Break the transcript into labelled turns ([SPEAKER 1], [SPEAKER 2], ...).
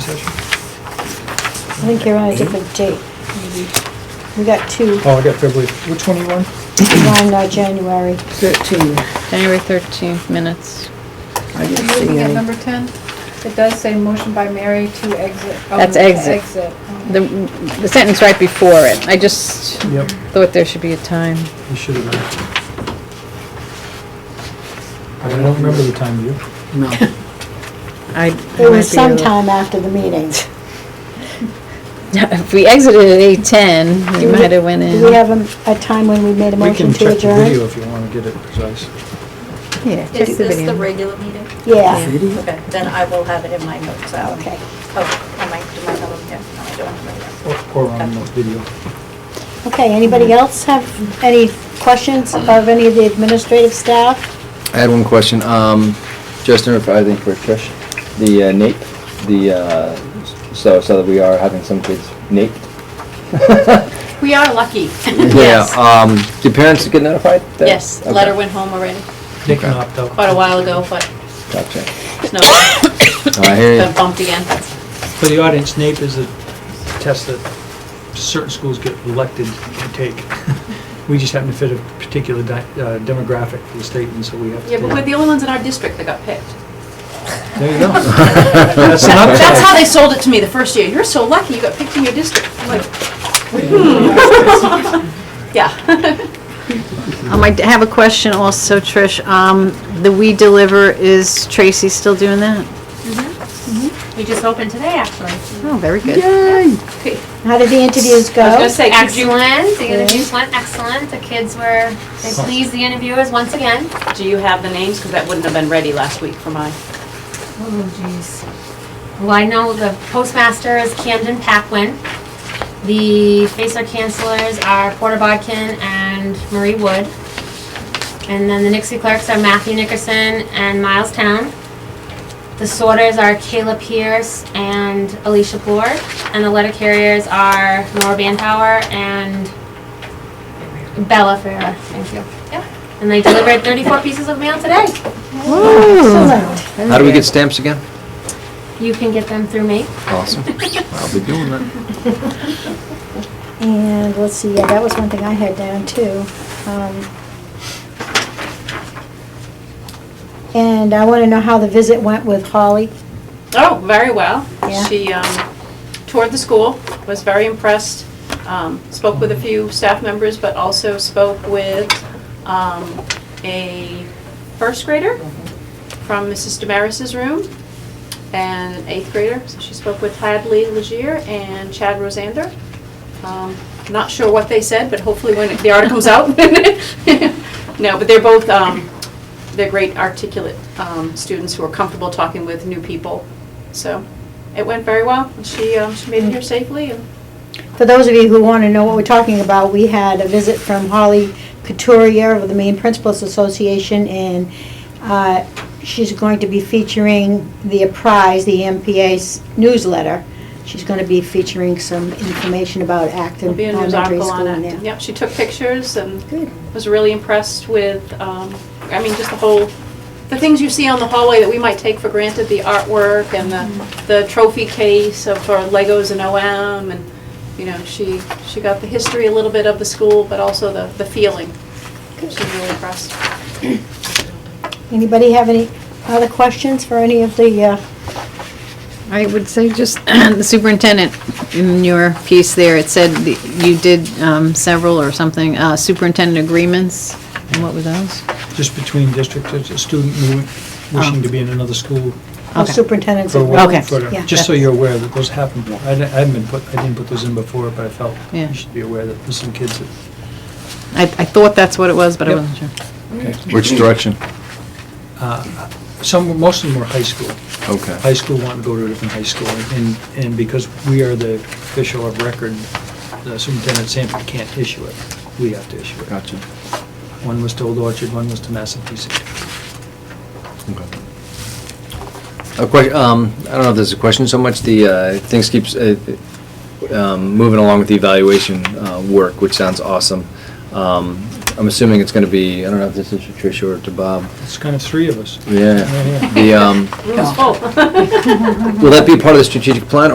[SPEAKER 1] session?
[SPEAKER 2] I think you're on a different date, maybe. We got two,
[SPEAKER 1] Oh, I got February, which one are you on?
[SPEAKER 2] one uh, January.
[SPEAKER 3] 13,
[SPEAKER 4] January 13th minutes.
[SPEAKER 3] I didn't
[SPEAKER 5] Are you
[SPEAKER 3] see
[SPEAKER 5] Looking at
[SPEAKER 3] any.
[SPEAKER 5] number 10, it does say motion by Mary to exit. oh,
[SPEAKER 4] That's
[SPEAKER 5] to
[SPEAKER 4] exit.
[SPEAKER 5] Oh.
[SPEAKER 4] The, the sentence right before it, I just
[SPEAKER 1] Yep,
[SPEAKER 4] thought there should be a time.
[SPEAKER 1] you should have done it. I don't remember the time, do you?
[SPEAKER 3] No.
[SPEAKER 4] I. I
[SPEAKER 2] It
[SPEAKER 4] might
[SPEAKER 2] was
[SPEAKER 4] be a little-
[SPEAKER 2] sometime after the meetings.
[SPEAKER 4] If we exited at 8:10, we
[SPEAKER 2] Do we-
[SPEAKER 4] might have went in.
[SPEAKER 2] Do we have a, a time when we made a
[SPEAKER 1] We
[SPEAKER 2] motion
[SPEAKER 1] can
[SPEAKER 2] to
[SPEAKER 1] check the video
[SPEAKER 2] adjourn?
[SPEAKER 1] if you want to get it precise.
[SPEAKER 4] Yeah, check
[SPEAKER 6] Is
[SPEAKER 4] the
[SPEAKER 6] this the
[SPEAKER 4] video.
[SPEAKER 6] regular meeting?
[SPEAKER 2] Yeah,
[SPEAKER 6] Okay, then I will have it in my notes out.
[SPEAKER 2] okay.
[SPEAKER 6] Oh, am I, do I have them here? No, I don't have them
[SPEAKER 1] Or- Or on the video.
[SPEAKER 2] Okay, anybody else have any questions of any of the administrative staff?
[SPEAKER 7] I had one question, um, Justin, if I think for Trish, the uh, nape, the, uh, so, so that we are having some kids nape.
[SPEAKER 8] We are lucky.
[SPEAKER 7] Yeah, um, do parents get notified? that-
[SPEAKER 8] Yes,
[SPEAKER 7] Okay,
[SPEAKER 8] letter went home already,
[SPEAKER 1] They can opt out.
[SPEAKER 8] quite a while ago, but
[SPEAKER 7] Gotcha.
[SPEAKER 8] it's no,
[SPEAKER 7] Oh, I hear
[SPEAKER 8] got
[SPEAKER 7] you.
[SPEAKER 8] bumped again.
[SPEAKER 1] For the audience, NAEP is a test that certain schools get elected to take. We just happen to fit a particular di- uh, demographic for the state, and so we have to.
[SPEAKER 8] Yeah, but
[SPEAKER 1] take
[SPEAKER 8] we're
[SPEAKER 1] it.
[SPEAKER 8] the only ones in our district that got picked.
[SPEAKER 1] There you go. That's an
[SPEAKER 8] That's
[SPEAKER 1] upside.
[SPEAKER 8] how they sold it to me the first year. You're so lucky you got picked in your district. I'm like, hmm. Yeah.
[SPEAKER 4] Um, I d- have a question also, Trish. Um, the We Deliver, is Tracy still doing that?
[SPEAKER 8] We just opened today, actually.
[SPEAKER 4] Oh, very good.
[SPEAKER 2] How did the interviews
[SPEAKER 8] I was
[SPEAKER 2] go?
[SPEAKER 8] gonna say, could you,
[SPEAKER 9] Excellent, the interviews went excellent, the kids were, they pleased the interviewers once again.
[SPEAKER 8] do you have the names? Because that wouldn't have been ready last week for mine.
[SPEAKER 9] Oh jeez. Well, I know the postmaster is Camden Packwin. The Facer cancelers are Porter Bodkin and Marie Wood. And then the Nixie clerks are Matthew Nickerson and Miles Town. The sorters are Kayla Pierce and Alicia Board. And the letter carriers are Nora Bantower and Bella Farah. Thank you. Yep. And they delivered 34 pieces of mail today.
[SPEAKER 2] Excellent.
[SPEAKER 7] How do we get stamps again?
[SPEAKER 9] You can get them through me.
[SPEAKER 7] Awesome. I'll be doing that.
[SPEAKER 2] And let's see, yeah, that was one thing I had down too. Um, And I want to know how the visit went with Holly.
[SPEAKER 8] Oh, very well.
[SPEAKER 2] Yeah.
[SPEAKER 8] She um, toured the school, was very impressed, um, spoke with a few staff members, but also spoke with um, a first grader from Mrs. Damaris's room and an eighth grader. So she spoke with Hadley Legier and Chad Rosander. Um, Not sure what they said, but hopefully when the article comes out. No, but they're both, um, they're great articulate um, students who are comfortable talking with new people. So it went very well. and She, um, she made it here safely and
[SPEAKER 2] For those of you who want to know what we're talking about, we had a visit from Holly Couturier of the Maine Principals Association, and uh, she's going to be featuring the prize, the E MPA's newsletter. She's going to be featuring some information about
[SPEAKER 8] there'll
[SPEAKER 2] Acton
[SPEAKER 8] be a news
[SPEAKER 2] Elementary
[SPEAKER 8] article
[SPEAKER 2] School
[SPEAKER 8] on
[SPEAKER 2] in
[SPEAKER 8] it.
[SPEAKER 2] there.
[SPEAKER 8] Yep, she took pictures and
[SPEAKER 2] Good.
[SPEAKER 8] was really impressed with, um, I mean, just the whole, the things you see on the hallway that we might take for granted, the artwork and the, the trophy case of our Legos and OM and, you know, she, she got the history a little bit of the school, but also the, the feeling. She's really impressed.
[SPEAKER 2] Anybody have any other questions for any of the, uh,
[SPEAKER 4] I would say just the superintendent, in your piece there, it said that you did um, several or something, uh, superintendent agreements, and what were those?
[SPEAKER 1] Just between districts, it's a student who wishing to be in another school
[SPEAKER 2] of
[SPEAKER 4] Okay.
[SPEAKER 2] superintendents?
[SPEAKER 1] for
[SPEAKER 2] of-
[SPEAKER 1] one,
[SPEAKER 4] Okay.
[SPEAKER 1] for-
[SPEAKER 2] Yeah.
[SPEAKER 1] just so you're aware that those happen. I di- I hadn't been put, I didn't put those in before, but I felt
[SPEAKER 4] Yeah.
[SPEAKER 1] you should be aware that there's some kids that,
[SPEAKER 4] I I thought that's what it was, but I
[SPEAKER 1] Yep.
[SPEAKER 4] wasn't sure.
[SPEAKER 7] Which direction?
[SPEAKER 1] Uh, some, most of them were high school.
[SPEAKER 7] Okay.
[SPEAKER 1] High school wanting to go to a different high school, and, and because we are the official of record, the superintendent of Sanford can't issue it. We have to issue it.
[SPEAKER 7] Gotcha.
[SPEAKER 1] One was to Old Orchard, one was to Massapequa.
[SPEAKER 7] Okay. A question, um, I don't know if this is a question so much, the, uh, things keeps, uh, um, moving along with the evaluation, uh, work, which sounds awesome. Um, I'm assuming it's gonna be, I don't know if this is to Tricia or to Bob.
[SPEAKER 1] It's kind of three of us.
[SPEAKER 7] Yeah.
[SPEAKER 1] Yeah, yeah.
[SPEAKER 7] The, um,
[SPEAKER 8] Room's full.
[SPEAKER 7] will that be part of the strategic plan,